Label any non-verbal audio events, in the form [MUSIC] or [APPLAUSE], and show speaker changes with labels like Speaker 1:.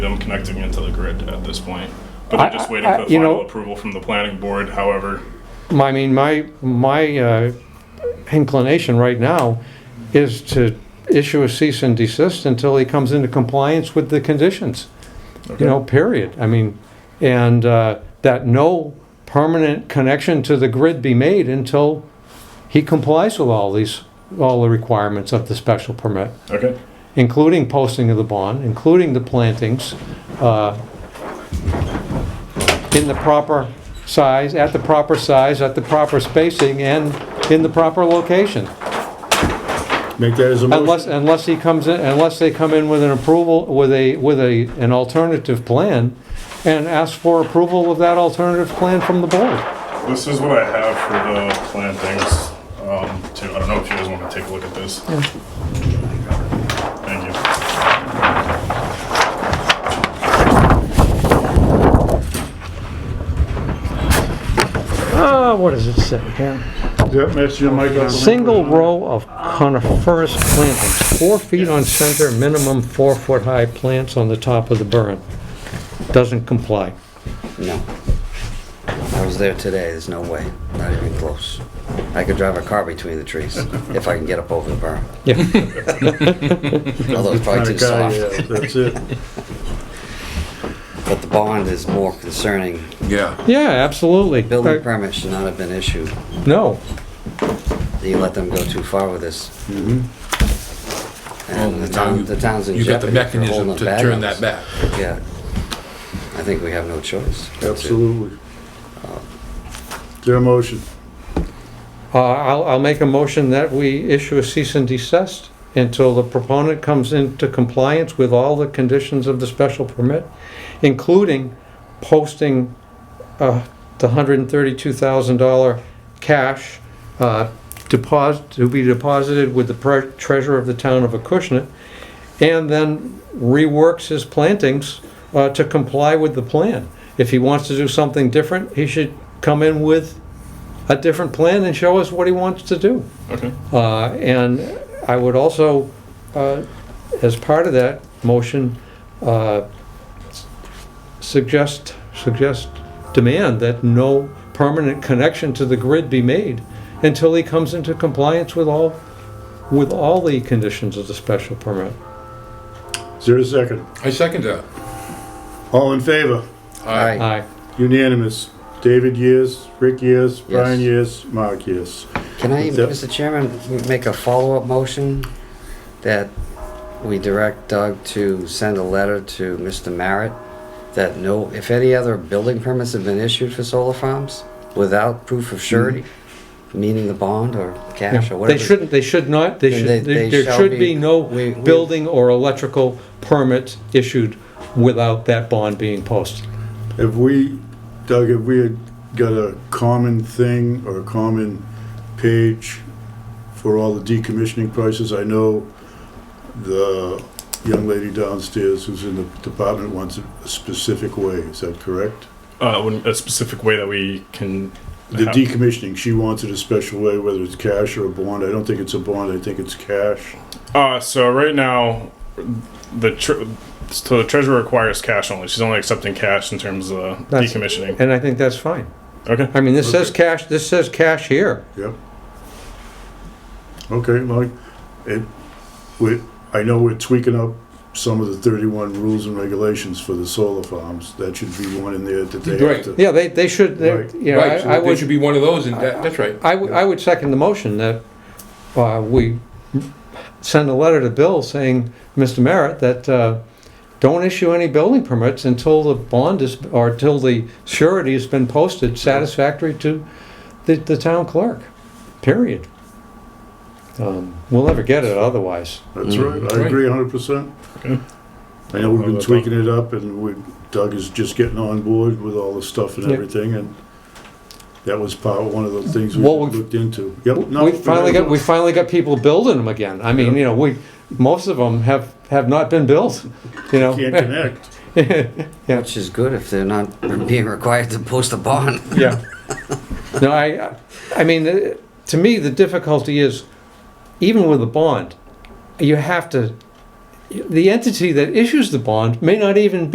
Speaker 1: them connecting into the grid at this point. But
Speaker 2: I-
Speaker 1: they're just waiting
Speaker 2: I-
Speaker 1: for the
Speaker 2: you know-
Speaker 1: final approval from the planning board, however.
Speaker 2: I mean, my, my uh, inclination right now is to issue a cease and desist until he comes into compliance with the conditions, you know, period. I mean, and uh, that no permanent connection to the grid be made until he complies with all these, all the requirements of the special permit,
Speaker 1: Okay,
Speaker 2: including posting of the bond, including the plantings, uh, in the proper size, at the proper size, at the proper spacing, and in the proper location.
Speaker 3: Make that as a
Speaker 2: Unless,
Speaker 3: motion.
Speaker 2: unless he comes in, unless they come in with an approval, with a, with a, an alternative plan, and ask for approval of that alternative plan from the board.
Speaker 1: this is what I have for the plantings, um, too. I don't know if you guys want to take a look at this. Thank you.
Speaker 2: Ah, what does it say here?
Speaker 3: Yep, that's your mic up.
Speaker 2: Single row of coniferous plantings, four feet on center, minimum four-foot-high plants on the top of the burn. Doesn't comply.
Speaker 4: No. I was there today, there's no way, not even close. I could drive a car between the
Speaker 3: [LAUGHS]
Speaker 4: trees if I can get up over the berm.
Speaker 2: Yeah, [LAUGHS]
Speaker 4: Although it's probably
Speaker 3: Kinda
Speaker 4: too
Speaker 3: guy,
Speaker 4: soft.
Speaker 3: [LAUGHS] yeah, That's it.
Speaker 4: But the bond is more concerning.
Speaker 5: Yeah,
Speaker 2: yeah, absolutely.
Speaker 4: Building
Speaker 2: Uh,
Speaker 4: permit should not have been issued.
Speaker 2: No,
Speaker 4: You let them go too far with this.
Speaker 3: Mm-hmm.
Speaker 4: And the
Speaker 5: Oh, now you-
Speaker 4: town, the town's in
Speaker 5: you got
Speaker 4: jeopardy
Speaker 5: the
Speaker 4: for
Speaker 5: mechanism
Speaker 4: holding
Speaker 5: to
Speaker 4: the bag
Speaker 5: turn
Speaker 4: on
Speaker 5: that
Speaker 4: us.
Speaker 5: back.
Speaker 4: Yeah. I think we have no choice.
Speaker 3: Absolutely. Is there a motion?
Speaker 2: Uh, I'll, I'll make a motion that we issue a cease and desist until the proponent comes into compliance with all the conditions of the special permit, including posting uh, the $132,000 cash uh, deposit, to be deposited with the pre- treasurer of the town of Acushnet, and then reworks his plantings uh, to comply with the plan. If he wants to do something different, he should come in with a different plan and show us what he wants to do.
Speaker 1: Okay.
Speaker 2: Uh, And I would also, uh, as part of that motion, uh, s- suggest, suggest, demand that no permanent connection to the grid be made until he comes into compliance with all, with all the conditions of the special permit.
Speaker 3: Is there a second?
Speaker 5: I second that.
Speaker 3: All in favor?
Speaker 5: I
Speaker 4: Aye.
Speaker 2: Aye.
Speaker 3: Unanimous. David, yes. Rick, yes. Brian, yes. Mark, yes.
Speaker 4: Can I,
Speaker 3: Yep.
Speaker 4: Mr. Chairman, make a follow-up motion that we direct Doug to send a letter to Mr. Merritt that no, if any other building permits have been issued for solar farms without proof of surety, meaning the bond or cash or
Speaker 2: Mm-hmm.
Speaker 4: whatever.
Speaker 2: They shouldn't, they should not, they
Speaker 4: Then
Speaker 2: should,
Speaker 4: they-
Speaker 2: there
Speaker 4: they
Speaker 2: there
Speaker 4: shall
Speaker 2: should
Speaker 4: be-
Speaker 2: be no
Speaker 4: we- we-
Speaker 2: building or electrical permit issued without that bond being posted.
Speaker 3: Have we, Doug, have we had got a common thing or a common page for all the decommissioning prices? I know the young lady downstairs who's in the department wants it a specific way. Is that correct?
Speaker 1: Uh, when- a specific way that we can.
Speaker 3: The
Speaker 2: Uh-huh.
Speaker 1: have-
Speaker 3: decommissioning, she wants it a special way, whether it's cash or a bond. I don't think it's a bond, I think it's cash.
Speaker 1: Uh, so right now, the tr- so the treasurer requires cash only. She's only accepting cash in terms of
Speaker 2: That's-
Speaker 1: decommissioning.
Speaker 2: And I think that's fine.
Speaker 1: Okay.
Speaker 2: I mean, this says cash, this says cash here.
Speaker 3: Yep. Okay, Mike, it, we, I know we're tweaking up some of the thirty-one rules and regulations for the solar farms. That should be one in there that they have
Speaker 5: Right.
Speaker 3: to.
Speaker 2: Yeah, they, they should, they're-
Speaker 3: Right.
Speaker 2: you know,
Speaker 5: Right,
Speaker 2: I I
Speaker 5: so there
Speaker 2: would,
Speaker 5: should be one of those, and that, that's right.
Speaker 2: I would, I would second the motion that uh, we send a letter to Bill saying, Mr. Merritt, that uh, don't issue any building permits until the bond is, or until the surety has been posted satisfactory to the, the town clerk, period. Um, We'll never get it otherwise.
Speaker 3: That's
Speaker 2: Mm-hmm.
Speaker 3: right, I agree hundred percent.
Speaker 1: Okay.
Speaker 3: I know we've been tweaking it up and we, Doug is just getting on board with all the stuff and
Speaker 2: Yeah.
Speaker 3: everything and that was part, one of the things we
Speaker 2: Well, we've-
Speaker 3: looked into. Yep. no,
Speaker 2: We finally got, we finally got people building them again. I mean,
Speaker 3: Yeah.
Speaker 2: you know, we, most of them have, have not been built, you know? [LAUGHS]
Speaker 3: Can't connect.
Speaker 4: Which is good if they're not being required to post a bond.
Speaker 2: Yeah. No, I, I mean, uh, to me, the difficulty is, even with a bond, you have to, the entity that issues the bond may not even